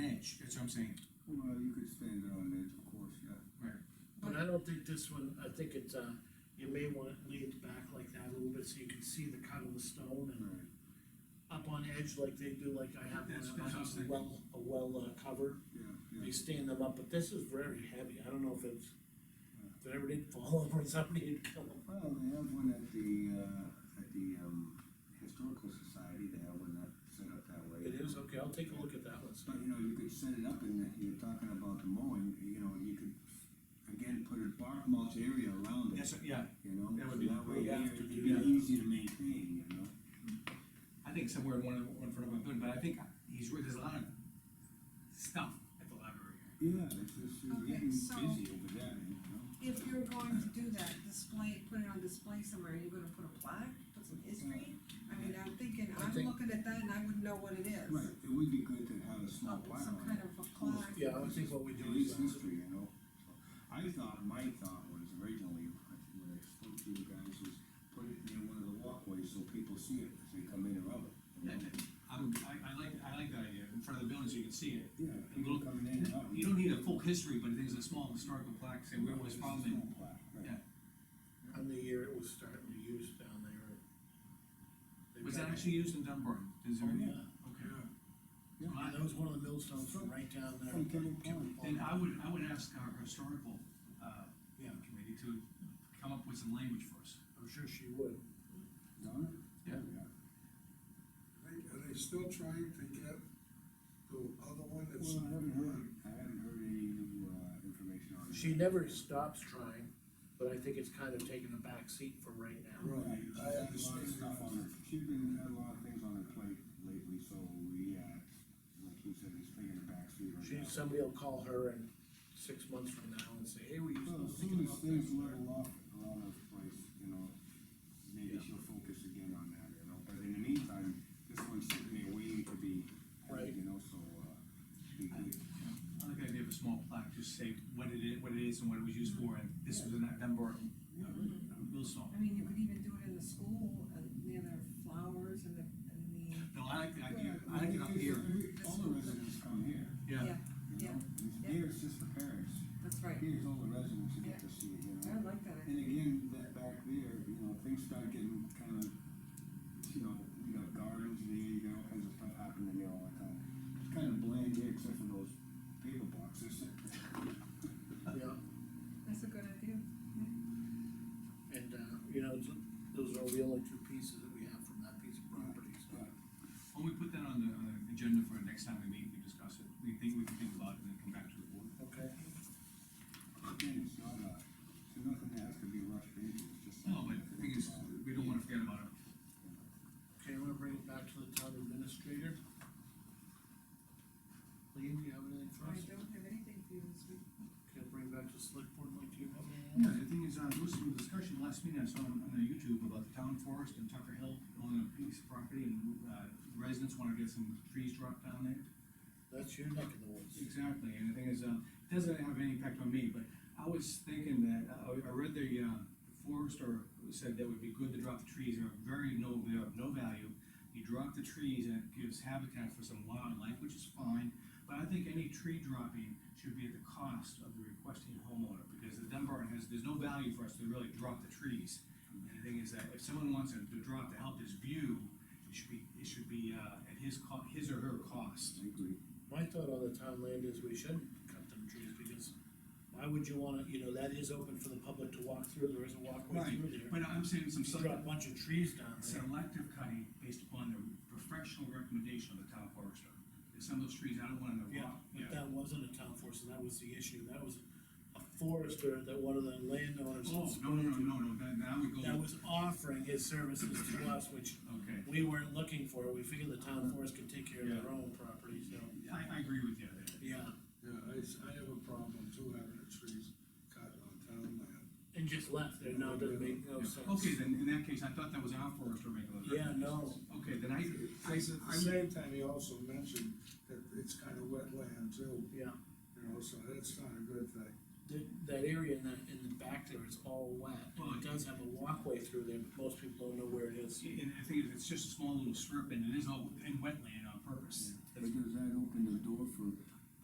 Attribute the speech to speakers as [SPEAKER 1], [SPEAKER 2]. [SPEAKER 1] what I'm saying.
[SPEAKER 2] Well, you could stand it on edge, of course, yeah.
[SPEAKER 3] But I don't think this one, I think it's, uh, you may wanna lay it back like that a little bit, so you can see the cut of the stone and
[SPEAKER 2] Right.
[SPEAKER 3] up on edge like they do, like I have
[SPEAKER 1] That's
[SPEAKER 3] one,
[SPEAKER 1] what
[SPEAKER 3] I
[SPEAKER 1] I was
[SPEAKER 3] have a
[SPEAKER 1] thinking.
[SPEAKER 3] well, a well uh, cover.
[SPEAKER 2] Yeah, yeah.
[SPEAKER 3] They stand them up, but this is very heavy, I don't know if it's, if it ever did fall over, somebody would kill them.
[SPEAKER 2] Well, they have one at the, uh, at the, um, Historical Society, they have one that set up that way.
[SPEAKER 3] It is, okay, I'll take a look at that one, so.
[SPEAKER 2] But, you know, you could set it up and that you're talking about the mowing, you know, you could, again, put a bark mulch area around it,
[SPEAKER 1] That's, yeah,
[SPEAKER 2] you know?
[SPEAKER 1] That would be-
[SPEAKER 2] So That way
[SPEAKER 1] we'd have
[SPEAKER 2] it-
[SPEAKER 1] to
[SPEAKER 2] it'd
[SPEAKER 1] do
[SPEAKER 2] be
[SPEAKER 1] that.
[SPEAKER 2] easy to maintain, you know?
[SPEAKER 1] I think somewhere in one of, one front of my building, but I think he's, there's a lot of stuff at the library.
[SPEAKER 2] Yeah, it's just, you're
[SPEAKER 4] Okay,
[SPEAKER 2] getting
[SPEAKER 4] so-
[SPEAKER 2] busy over there, you know?
[SPEAKER 4] If you're going to do that, display, put it on display somewhere, you're gonna put a plaque, put some history? I mean, I'm thinking,
[SPEAKER 3] I
[SPEAKER 4] I'm
[SPEAKER 3] think-
[SPEAKER 4] looking at that and I wouldn't know what it is.
[SPEAKER 2] Right, it would be good to have a small
[SPEAKER 4] Some
[SPEAKER 2] plaque
[SPEAKER 4] some
[SPEAKER 2] on
[SPEAKER 4] kind
[SPEAKER 2] it.
[SPEAKER 4] of a plaque.
[SPEAKER 3] Oh, Yeah, I think what we do
[SPEAKER 2] It
[SPEAKER 3] is, uh,
[SPEAKER 2] is history, you know? So, I thought, my thought was originally, when I spoke to you guys, was put it near one of the walkways so people see it as they come in and out. you know?
[SPEAKER 1] I'm, I, I like, I like that idea, in front of the building so you can see it.
[SPEAKER 2] Yeah, people coming in and out.
[SPEAKER 1] You don't need a full history, but there's a small historical plaque, say where it was from and
[SPEAKER 2] Right.
[SPEAKER 3] on the year it was starting to use down there. and they
[SPEAKER 1] Was
[SPEAKER 3] got
[SPEAKER 1] that
[SPEAKER 3] it.
[SPEAKER 1] actually used in Dunbar? Does it-
[SPEAKER 3] Oh, yeah.
[SPEAKER 1] Okay.
[SPEAKER 2] Yeah.
[SPEAKER 3] I mean, that was one of the millstones from right down there.
[SPEAKER 2] From Kimball Pond.
[SPEAKER 1] Then I would, I would ask our historical, uh,
[SPEAKER 3] Yeah.
[SPEAKER 1] committee to come up with some language for us.
[SPEAKER 3] I'm sure she would.
[SPEAKER 2] Done it?
[SPEAKER 1] Yeah.
[SPEAKER 5] Are they- Are they still trying to get the other one that's?
[SPEAKER 2] Well, I haven't heard, I haven't heard any new, uh, information on it.
[SPEAKER 3] She never stops trying, but I think it's kind of taking a back seat for right now.
[SPEAKER 2] Right, she's
[SPEAKER 5] I
[SPEAKER 2] had a lot
[SPEAKER 5] understand
[SPEAKER 2] of stuff
[SPEAKER 5] that.
[SPEAKER 2] on her, she's been, had a lot of things on her plate lately, so we, uh, like you said, he's taking a backseat right
[SPEAKER 3] She,
[SPEAKER 2] now.
[SPEAKER 3] somebody will call her in six months from now and say, hey, we used
[SPEAKER 2] Well,
[SPEAKER 3] to
[SPEAKER 2] as
[SPEAKER 3] think
[SPEAKER 2] soon as
[SPEAKER 3] about
[SPEAKER 2] things
[SPEAKER 3] this.
[SPEAKER 2] level off around her place, you know, maybe
[SPEAKER 3] Yeah.
[SPEAKER 2] she'll focus again on that, you know, but in the meantime, this one's sitting there waiting to be, heard,
[SPEAKER 3] Right.
[SPEAKER 2] you know, so, uh, be good.
[SPEAKER 1] I like the idea of a small plaque, just say what it is, what it is and what it was used for, and this was in that Dunbar, uh, millstone.
[SPEAKER 4] I mean, you could even do it in the school, uh, near the flowers and the, and the,
[SPEAKER 1] No, I like the idea, I like it up here.
[SPEAKER 2] All the residents come here,
[SPEAKER 4] yeah,
[SPEAKER 2] you know,
[SPEAKER 4] Yeah.
[SPEAKER 2] here it's just the parents,
[SPEAKER 4] that's right.
[SPEAKER 2] here's all the residents who get to see it, you know.
[SPEAKER 4] I like that,
[SPEAKER 2] And again, that back there, you know, things start getting kind of, you know, you got gardens there, you got all kinds of stuff happening there all the time. It's kind of bland here except for those paper boxes.
[SPEAKER 3] Yeah,
[SPEAKER 4] that's a good idea.
[SPEAKER 3] and, uh, you know, th- those are the only two pieces that we have from that piece of property, so.
[SPEAKER 1] When we put that on the, on the agenda for next time we meet, we discuss it, we think, we can think about it and then come back to the board.
[SPEAKER 3] Okay,
[SPEAKER 2] Again, it's not a, it's nothing that has to be rushed into, it's just.
[SPEAKER 1] No, but the thing is, we don't wanna forget about it.
[SPEAKER 3] okay, I'm gonna bring it back to the town administrator. Lean, do you have anything for
[SPEAKER 4] I
[SPEAKER 3] us?
[SPEAKER 4] don't have anything for you this week.
[SPEAKER 3] Can I bring it back to select board, like, do you have anything?
[SPEAKER 1] Yeah, the thing is, uh, there was some discussion last meeting I saw on, on the YouTube about the town forest and Tucker Hill owning a piece of property and, uh, residents wanna get some trees dropped down there.
[SPEAKER 3] That's your neck of the woods.
[SPEAKER 1] Exactly, and the thing is, uh, it doesn't have any impact on me, but I was thinking that, I, I read the, uh, forester said that would be good to drop the trees, they're very no, they're of no value. You drop the trees and it gives habitat for some wildlife, which is fine, but I think any tree dropping should be at the cost of the requesting homeowner, because the Dunbar has, there's no value for us to really drop the trees. And the thing is that if someone wants to to drop to help his view, it should be, it should be, uh, at his co- his or her cost.
[SPEAKER 2] I agree.
[SPEAKER 3] My thought on the town land is we shouldn't cut them trees, because why would you wanna, you know, that is open for the public to walk through, there is a walkway
[SPEAKER 1] Right,
[SPEAKER 3] through there.
[SPEAKER 1] but I'm saying some
[SPEAKER 3] You
[SPEAKER 1] sort
[SPEAKER 3] drop a bunch of trees down there,
[SPEAKER 1] selective cutting based upon the professional recommendation of the town forester. There's some of those trees I don't want in the rock.
[SPEAKER 3] but that wasn't a town forest, and that was the issue, that was a forester that one of the landowners. had
[SPEAKER 1] Oh, no, no, no, no, no, that, that would go,
[SPEAKER 3] That was offering his services to us, which
[SPEAKER 1] okay. Uh-huh.
[SPEAKER 3] we weren't looking for, we figured the town forest could take care of their own property, so,
[SPEAKER 1] I, I agree with you there.
[SPEAKER 3] yeah.
[SPEAKER 5] Yeah, I, s- I have a problem too, having the trees cut on town land.
[SPEAKER 3] And just left there, now doesn't make no
[SPEAKER 1] Yeah.
[SPEAKER 3] sense.
[SPEAKER 1] Okay, then, in that case, I thought that was our forester making those
[SPEAKER 3] Yeah, no,
[SPEAKER 1] recommendations. Okay, then I, I,
[SPEAKER 5] At the
[SPEAKER 1] I,
[SPEAKER 5] same time, he also mentioned that it's kind of wetland too,
[SPEAKER 3] yeah.
[SPEAKER 5] you know, so that's not a good thing.
[SPEAKER 3] That, that area in the, in the back there is all wet, and it does have a walkway through there, but most people don't know where it is.
[SPEAKER 1] and the thing is, it's just a small little strip and it is all in wetland on purpose.
[SPEAKER 2] But does that open the door for